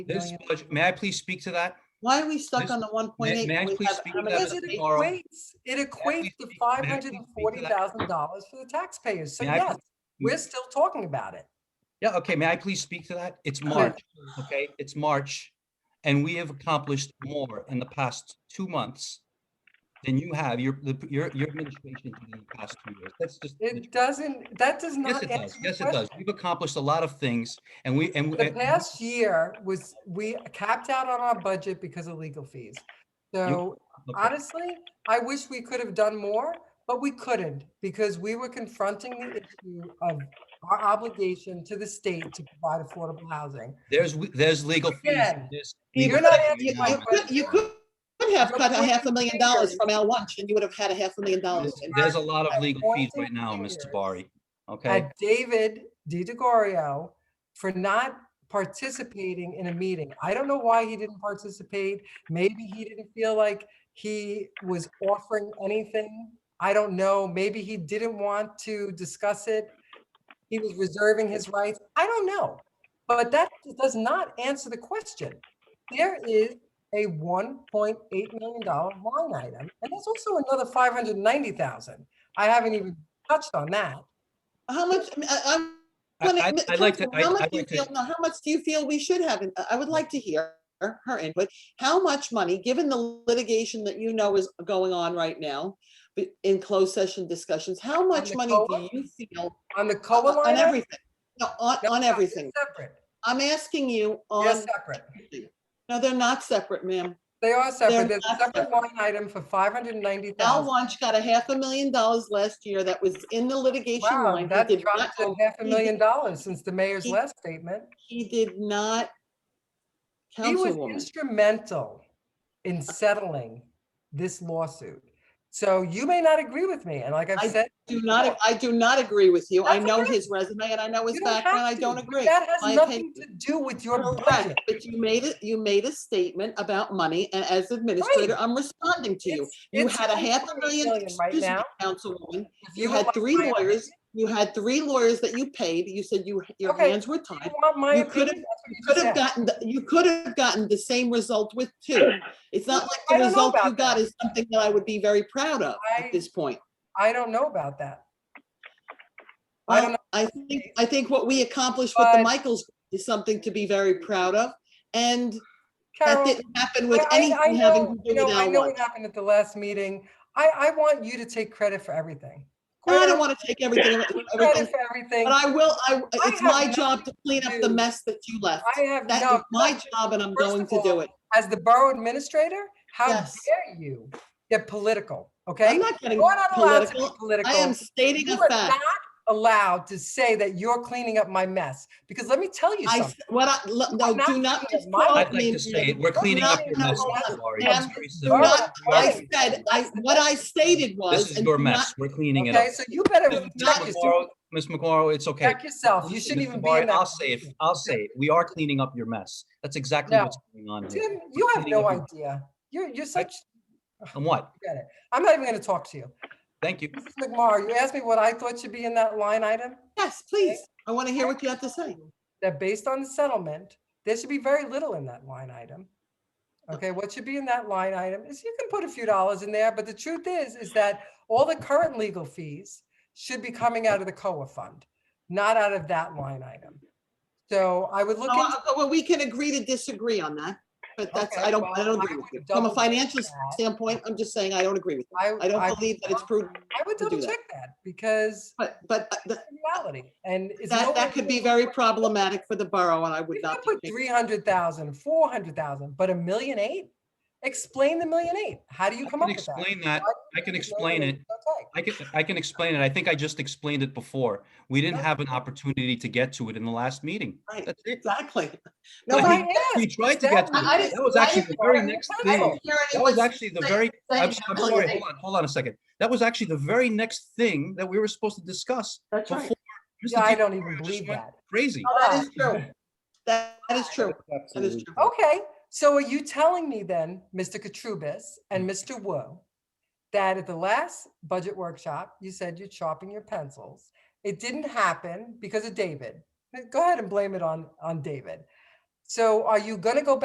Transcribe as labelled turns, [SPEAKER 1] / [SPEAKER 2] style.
[SPEAKER 1] This budget, may I please speak to that?
[SPEAKER 2] Why are we stuck
[SPEAKER 1] This-
[SPEAKER 2] on the one point
[SPEAKER 1] may-
[SPEAKER 2] eight?
[SPEAKER 1] may I please speak to that
[SPEAKER 3] Because it
[SPEAKER 1] Laura,
[SPEAKER 3] equates, it equates to
[SPEAKER 1] speak- may I
[SPEAKER 3] five
[SPEAKER 1] please
[SPEAKER 3] hundred
[SPEAKER 1] speak
[SPEAKER 3] and
[SPEAKER 1] to
[SPEAKER 3] forty
[SPEAKER 1] that?
[SPEAKER 3] thousand dollars for the taxpayers. So
[SPEAKER 1] May I
[SPEAKER 3] yes, we're still talking about it.
[SPEAKER 1] Yeah, okay, may I please speak to that? It's March, okay? It's March, and we have accomplished more in the past two months than you have, your, the- your, your administration did in the past two years. That's just.
[SPEAKER 3] It doesn't, that does
[SPEAKER 1] Yes,
[SPEAKER 3] not
[SPEAKER 1] it does.
[SPEAKER 3] answer the
[SPEAKER 1] Yes, it does.
[SPEAKER 3] question.
[SPEAKER 1] We've accomplished a lot of things, and we, and. we-
[SPEAKER 3] The
[SPEAKER 1] and-
[SPEAKER 3] past year was, we capped out on our budget because of legal fees. So
[SPEAKER 1] okay.
[SPEAKER 3] honestly, I wish we could have done more, but we couldn't because we were confronting the issue of our obligation to the state to provide affordable housing.
[SPEAKER 1] There's, w- there's legal fees.
[SPEAKER 3] Again,
[SPEAKER 1] there's
[SPEAKER 2] You
[SPEAKER 1] legal
[SPEAKER 3] You're not
[SPEAKER 1] fees.
[SPEAKER 3] answering my
[SPEAKER 2] you could- you could could have cut a half a million dollars from Al Wunsch and you would have had a half a million dollars.
[SPEAKER 1] There's- There's a lot of legal fees right
[SPEAKER 3] pointing
[SPEAKER 1] now,
[SPEAKER 3] fingers.
[SPEAKER 1] Mr. Bari, okay?
[SPEAKER 3] at David DiGregorio for not participating in a meeting. I don't know why he didn't participate. Maybe he didn't feel like he was offering anything. I don't know. Maybe he didn't want to discuss it. He was reserving his rights. I don't know. But that does not answer the question. There is a $1.8 million line item, and there's also another 590,000. I haven't even touched on that.
[SPEAKER 2] How much, I- I,
[SPEAKER 1] I-
[SPEAKER 2] I'm.
[SPEAKER 1] I- I'd like to, I'd
[SPEAKER 2] How much
[SPEAKER 1] I'd
[SPEAKER 2] do you
[SPEAKER 1] like
[SPEAKER 2] feel,
[SPEAKER 1] to,
[SPEAKER 2] no, how much do you feel we should have? in- I would like to hear her input. How much money, given the litigation that you know is going on right now be- in closed session discussions, how much
[SPEAKER 3] the
[SPEAKER 2] money do
[SPEAKER 3] COLA?
[SPEAKER 2] you feel
[SPEAKER 3] On the COLA
[SPEAKER 2] on
[SPEAKER 3] line? item?
[SPEAKER 2] everything? No, on,
[SPEAKER 3] No,
[SPEAKER 2] on
[SPEAKER 3] no, they're
[SPEAKER 2] everything.
[SPEAKER 3] Separate.
[SPEAKER 2] I'm asking you
[SPEAKER 3] They're
[SPEAKER 2] on,
[SPEAKER 3] separate.
[SPEAKER 2] no, they're not separate, ma'am.
[SPEAKER 3] They are separate. There's a
[SPEAKER 2] not
[SPEAKER 3] separate
[SPEAKER 2] separate.
[SPEAKER 3] line item for five hundred and ninety
[SPEAKER 2] Al
[SPEAKER 3] thousand.
[SPEAKER 2] Wunsch got a half a million dollars last year that was in the litigation
[SPEAKER 3] Wow,
[SPEAKER 2] line. He
[SPEAKER 3] that
[SPEAKER 2] did not,
[SPEAKER 3] dropped to half a
[SPEAKER 2] he
[SPEAKER 3] million
[SPEAKER 2] did-
[SPEAKER 3] dollars since the mayor's
[SPEAKER 2] he-
[SPEAKER 3] last statement.
[SPEAKER 2] he did not.
[SPEAKER 3] He was
[SPEAKER 2] Councilwoman,
[SPEAKER 3] instrumental in settling this lawsuit. So you may not agree with me, and like
[SPEAKER 2] I
[SPEAKER 3] I've said.
[SPEAKER 2] do not, I do not agree with you. I
[SPEAKER 3] That's
[SPEAKER 2] know
[SPEAKER 3] okay.
[SPEAKER 2] his resume and I know his
[SPEAKER 3] you don't have
[SPEAKER 2] background. I
[SPEAKER 3] to,
[SPEAKER 2] don't
[SPEAKER 3] but
[SPEAKER 2] agree.
[SPEAKER 3] That
[SPEAKER 2] My
[SPEAKER 3] has nothing to
[SPEAKER 2] opinion.
[SPEAKER 3] do with your budget.
[SPEAKER 2] Correct, but you made it, you made a statement about money and as administrator, I'm responding to you.
[SPEAKER 3] It's-
[SPEAKER 2] You
[SPEAKER 3] it's
[SPEAKER 2] had a half a
[SPEAKER 3] 1.8
[SPEAKER 2] million,
[SPEAKER 3] million Right
[SPEAKER 2] excuse me,
[SPEAKER 3] now.
[SPEAKER 2] Councilwoman.
[SPEAKER 3] If
[SPEAKER 2] You
[SPEAKER 3] would
[SPEAKER 2] had
[SPEAKER 3] like
[SPEAKER 2] three
[SPEAKER 3] my opinion-
[SPEAKER 2] lawyers, you had three lawyers that you paid. You said you, your
[SPEAKER 3] Okay,
[SPEAKER 2] hands were
[SPEAKER 3] if You
[SPEAKER 2] tied.
[SPEAKER 3] want my
[SPEAKER 2] You could've-
[SPEAKER 3] opinion? that's what you
[SPEAKER 2] Could
[SPEAKER 3] just
[SPEAKER 2] have
[SPEAKER 3] said.
[SPEAKER 2] gotten, the- you could have gotten the same result with two. It's not like the
[SPEAKER 3] I don't know
[SPEAKER 2] result you
[SPEAKER 3] about that.
[SPEAKER 2] got is something that I would be very proud of
[SPEAKER 3] I-
[SPEAKER 2] at this point.
[SPEAKER 3] I don't know about that. I don't
[SPEAKER 2] Well, I think, I think what we accomplished with
[SPEAKER 3] But-
[SPEAKER 2] the Michaels is something to be very proud of. And that
[SPEAKER 3] Carol,
[SPEAKER 2] didn't happen with
[SPEAKER 3] I- I- I
[SPEAKER 2] anything having
[SPEAKER 3] know-
[SPEAKER 2] to
[SPEAKER 3] you
[SPEAKER 2] do
[SPEAKER 3] know,
[SPEAKER 2] with
[SPEAKER 3] I
[SPEAKER 2] Al
[SPEAKER 3] know
[SPEAKER 2] One.
[SPEAKER 3] what happened at the last meeting. I, I want you to take credit for everything.
[SPEAKER 2] And I
[SPEAKER 3] Credit-
[SPEAKER 2] don't want to take everything,
[SPEAKER 3] Credit
[SPEAKER 2] everything,
[SPEAKER 3] for everything.
[SPEAKER 2] but I will, I,
[SPEAKER 3] I
[SPEAKER 2] it's
[SPEAKER 3] have
[SPEAKER 2] my
[SPEAKER 3] nothing
[SPEAKER 2] job to clean up
[SPEAKER 3] do-
[SPEAKER 2] the mess that you left.
[SPEAKER 3] I have
[SPEAKER 2] That
[SPEAKER 3] no.
[SPEAKER 2] is my job and I'm
[SPEAKER 3] First
[SPEAKER 2] going
[SPEAKER 3] of
[SPEAKER 2] to do
[SPEAKER 3] all,
[SPEAKER 2] it.
[SPEAKER 3] As the borough administrator, how
[SPEAKER 2] Yes.
[SPEAKER 3] dare you get political, okay?
[SPEAKER 2] I'm not getting,
[SPEAKER 3] You're not allowed to be
[SPEAKER 2] political.
[SPEAKER 3] political.
[SPEAKER 2] I am stating
[SPEAKER 3] You
[SPEAKER 2] a
[SPEAKER 3] are
[SPEAKER 2] fact.
[SPEAKER 3] not allowed to say that you're cleaning up my mess, because let me tell you
[SPEAKER 2] I,
[SPEAKER 3] something.
[SPEAKER 2] s- what I, le- no,
[SPEAKER 3] I'm not
[SPEAKER 2] do not
[SPEAKER 3] cleaning up my
[SPEAKER 2] misquote
[SPEAKER 1] I'd like
[SPEAKER 2] me,
[SPEAKER 1] to say, it.
[SPEAKER 2] ma'am.
[SPEAKER 1] we're cleaning up your
[SPEAKER 2] no,
[SPEAKER 1] mess,
[SPEAKER 2] no,
[SPEAKER 1] Mr. Bari.
[SPEAKER 2] ma'am,
[SPEAKER 1] It's very
[SPEAKER 2] Do
[SPEAKER 1] simple.
[SPEAKER 2] not,
[SPEAKER 3] You're
[SPEAKER 2] I
[SPEAKER 3] right.
[SPEAKER 2] said, I, what I stated was.
[SPEAKER 1] This is
[SPEAKER 2] and
[SPEAKER 1] your
[SPEAKER 2] do not
[SPEAKER 1] mess. We're cleaning it up.
[SPEAKER 3] Okay, so you better
[SPEAKER 2] This is
[SPEAKER 3] check
[SPEAKER 2] not-
[SPEAKER 3] yourself,
[SPEAKER 1] McMorrow- Ms. McMorro, it's okay.
[SPEAKER 3] check yourself. You
[SPEAKER 1] Listen,
[SPEAKER 3] shouldn't
[SPEAKER 1] Mr.
[SPEAKER 3] even be
[SPEAKER 1] Bari,
[SPEAKER 3] in that.
[SPEAKER 1] I'll say it,
[SPEAKER 3] position.
[SPEAKER 1] I'll say it. We are cleaning up your mess. That's exactly
[SPEAKER 3] No.
[SPEAKER 1] what's going on here.
[SPEAKER 3] Tim, you have
[SPEAKER 1] cleaning
[SPEAKER 3] no
[SPEAKER 1] up
[SPEAKER 3] idea. You're, you're such,
[SPEAKER 1] And what?
[SPEAKER 3] forget it. I'm not even gonna talk to you.
[SPEAKER 1] Thank you.
[SPEAKER 3] Mrs. McMorro, you asked me what I thought should be in that line item?
[SPEAKER 2] Yes, please. I want to hear what you have to say.
[SPEAKER 3] That based on the settlement, there should be very little in that line item. Okay, what should be in that line item is you can put a few dollars in there, but the truth is, is that all the current legal fees should be coming out of the COA fund, not out of that line item. So I would look
[SPEAKER 2] Oh,
[SPEAKER 3] into.
[SPEAKER 2] uh, Well, we can agree to disagree on that, but that's,
[SPEAKER 3] Okay,
[SPEAKER 2] I don't,
[SPEAKER 3] well,
[SPEAKER 2] I don't
[SPEAKER 3] I
[SPEAKER 2] agree with
[SPEAKER 3] would
[SPEAKER 2] you. From a
[SPEAKER 3] double
[SPEAKER 2] financial
[SPEAKER 3] check that.
[SPEAKER 2] standpoint, I'm just saying I don't agree with you. I don't believe that it's prudent,
[SPEAKER 3] I would
[SPEAKER 2] to do
[SPEAKER 3] double
[SPEAKER 2] that.
[SPEAKER 3] check that because
[SPEAKER 2] but, but uh, th-
[SPEAKER 3] reality and. it's
[SPEAKER 2] that,
[SPEAKER 3] nowhere
[SPEAKER 2] that could
[SPEAKER 3] near-
[SPEAKER 2] be very problematic for the borough and I
[SPEAKER 3] We
[SPEAKER 2] would
[SPEAKER 3] can
[SPEAKER 2] not.
[SPEAKER 3] put
[SPEAKER 2] be-
[SPEAKER 3] three hundred thousand, four hundred thousand, but a million eight? Explain the million eight. How do you
[SPEAKER 1] I
[SPEAKER 3] come
[SPEAKER 1] can
[SPEAKER 3] up with that?
[SPEAKER 1] explain that.
[SPEAKER 3] Why
[SPEAKER 1] I can
[SPEAKER 3] do you think
[SPEAKER 1] explain
[SPEAKER 3] million
[SPEAKER 1] it.
[SPEAKER 3] eight is okay?
[SPEAKER 1] I can, I can explain it. I think I just explained it before. We didn't
[SPEAKER 3] No.
[SPEAKER 1] have an opportunity to get to it in the last meeting.
[SPEAKER 2] Right,
[SPEAKER 1] That's it.
[SPEAKER 2] Exactly.
[SPEAKER 3] No,
[SPEAKER 2] No,
[SPEAKER 1] But
[SPEAKER 3] I
[SPEAKER 2] I
[SPEAKER 1] he-
[SPEAKER 3] asked.
[SPEAKER 1] We tried to get to
[SPEAKER 2] I- I
[SPEAKER 1] it.
[SPEAKER 2] didn't-
[SPEAKER 1] That was
[SPEAKER 3] I
[SPEAKER 1] actually the
[SPEAKER 3] didn't-
[SPEAKER 1] very
[SPEAKER 3] I didn't
[SPEAKER 1] next
[SPEAKER 3] try
[SPEAKER 1] thing.
[SPEAKER 3] to.
[SPEAKER 2] hear
[SPEAKER 1] That was
[SPEAKER 2] anyone
[SPEAKER 1] actually the
[SPEAKER 2] say-
[SPEAKER 1] very,
[SPEAKER 2] say
[SPEAKER 1] I'm I'm
[SPEAKER 2] million
[SPEAKER 1] sorry,
[SPEAKER 2] eight.
[SPEAKER 1] hold on, hold on a second. That was actually the very next thing that we were supposed to discuss
[SPEAKER 2] That's
[SPEAKER 1] before.
[SPEAKER 2] right.
[SPEAKER 3] Yeah,
[SPEAKER 1] Mr.
[SPEAKER 3] I
[SPEAKER 1] Di
[SPEAKER 3] don't even
[SPEAKER 1] Gregorio just
[SPEAKER 3] believe
[SPEAKER 1] went
[SPEAKER 3] that. Oh,
[SPEAKER 1] Crazy.
[SPEAKER 2] No, That is true. That that is true. That is true.
[SPEAKER 3] Okay, so are you telling me then, Mr. Katrubis and Mr. Wu, that at the last budget workshop, you said you're chopping your pencils? It didn't happen because of David. Go ahead and blame it on, on David. So are you going to go back